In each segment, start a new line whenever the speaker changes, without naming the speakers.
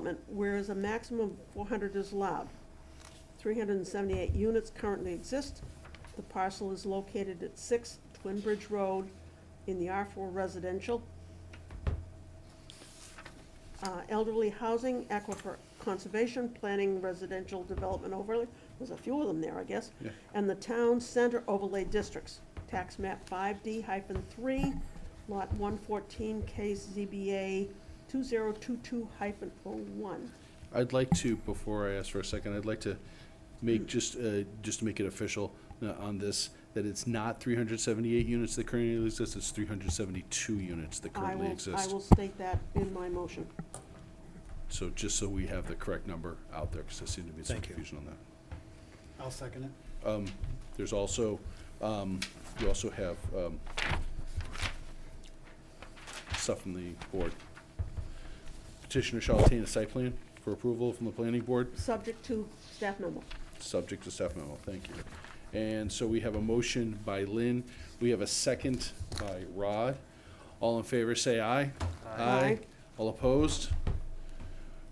development, whereas a maximum of four hundred is allowed. Three hundred and seventy-eight units currently exist. The parcel is located at six Twin Bridge Road in the R four residential. Uh, elderly housing, aquifer conservation, planning, residential development overlay, there's a few of them there, I guess.
Yeah.
And the town center overlay districts, tax map five D hyphen three, lot one fourteen, case ZBA two zero two two hyphen oh one.
I'd like to, before I ask for a second, I'd like to
Hmm.
make, just, uh, just to make it official uh, on this, that it's not three hundred seventy-eight units that currently exist, it's three hundred seventy-two units that
I
currently
will, I
exist.
will state that in my motion.
So just so we have the correct number out there, because there seemed to be some
Thank you.
confusion on that.
I'll second it.
There's also, um, you also have, um, stuff from the board. Petitioner shall obtain a site plan for approval from the planning board
Subject to staff memo.
subject to staff memo, thank you. And so we have a motion by Lynn, we have a second by Rod. All in favor, say aye.
Aye.
All opposed?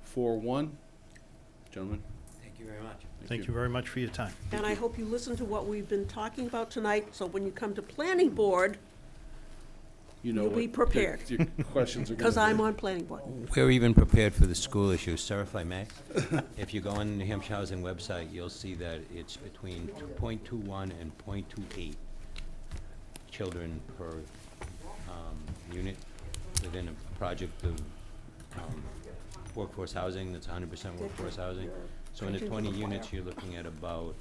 Four, one. Gentlemen,
Thank you very much.
Thank you very much for your time.
And I hope you listen to what we've been talking about tonight, so when you come to planning board,
you know
You'll
what
be
your-
prepared.
Your questions are gonna be.
because I'm on planning board.
Oh.
We're even prepared for the school issue, sir, if I may. If you go on the New Hampshire Housing website, you'll see that it's between 2.21 and 0.28 children per um, unit within a project of um, workforce housing, that's 100% workforce housing. So in the 20 units, you're looking at about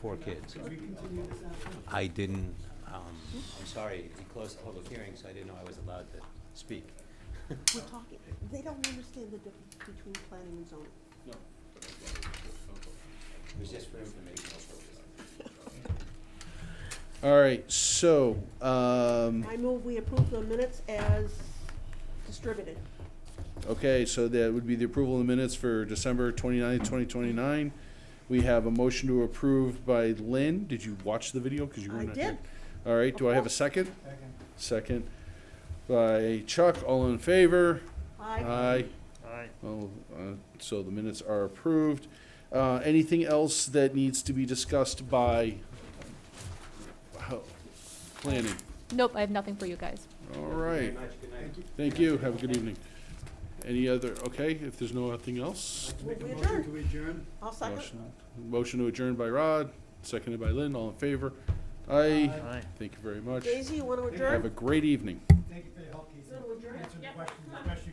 four kids. I didn't, um, I'm sorry, you closed the public hearing, so I didn't know I was allowed to speak.
We're talking, they don't understand the difference between planning and zoning.
It was just for informational purposes.
All right, so, um,
I move we approve the minutes as distributed.
okay, so that would be the approval of the minutes for December twenty-ninth, twenty twenty-nine. We have a motion to approve by Lynn. Did you watch the video? Because you were
I
not here.
did.
All right, do I have a second? Second by Chuck, all in favor? Uh,
Aye.
Aye.
Well, uh, so the minutes are approved. Uh, anything else that needs to be discussed by, wow, planning?
Nope, I have nothing for you guys.
All right, thank you, have a good evening. Any other, okay, if there's no nothing else?
Will we
Motion
adjourn?
to adjourn?
I'll second.
motion- Motion to adjourn by Rod, seconded by Lynn, all in favor? Aye, thank you very much.
Daisy, you want to adjourn?
Have a great evening.
Thank you for your help, Casey.
Little adjournment.
Answering the questions, especially